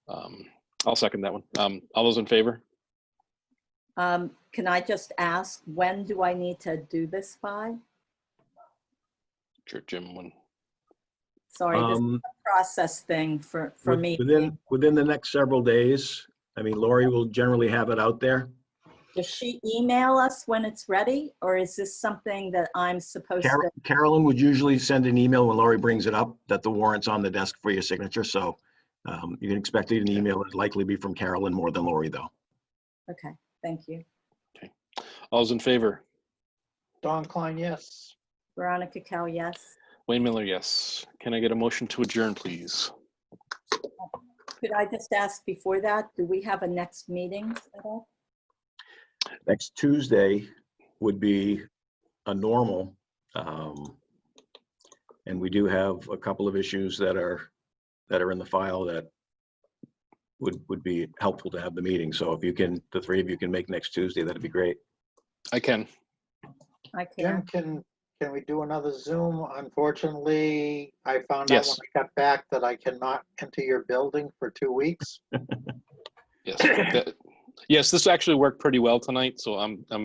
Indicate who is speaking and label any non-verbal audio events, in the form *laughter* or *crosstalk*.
Speaker 1: Um, I'll second that one. Um, all those in favor?
Speaker 2: Um, Can I just ask, when do I need to do this by?
Speaker 1: Sure, Jim, when,
Speaker 2: Sorry, this is
Speaker 3: Um,
Speaker 2: a process thing for, for
Speaker 3: with-
Speaker 2: me.
Speaker 3: Within, within the next several days, I mean, Lori will generally have it out there.
Speaker 2: Does she email us when it's ready, or is this something that I'm supposed
Speaker 3: Car-
Speaker 2: to?
Speaker 3: Carolyn would usually send an email when Lori brings it up that the warrant's on the desk for your signature, so um, you can expect an email. It'd likely be from Carolyn more than Lori, though.
Speaker 2: Okay, thank you.
Speaker 1: all those in favor?
Speaker 4: Don Klein, yes.
Speaker 2: Veronica Cal, yes.
Speaker 1: Wayne Miller, yes. Can I get a motion to adjourn, please?
Speaker 2: Could I just ask before that, do we have a next meeting at all?
Speaker 3: Next Tuesday would be a normal. um, And we do have a couple of issues that are, that are in the file that would, would be helpful to have the meeting. So if you can, the three of you can make next Tuesday, that'd be great.
Speaker 1: I can.
Speaker 2: I
Speaker 4: Jim,
Speaker 2: can.
Speaker 4: can, can we do another Zoom? Unfortunately, I found out when
Speaker 1: Yes.
Speaker 4: I got back that I cannot enter your building for two weeks.
Speaker 1: *coughs* Yes. That- Yes, this actually worked pretty well tonight, so I'm, I'm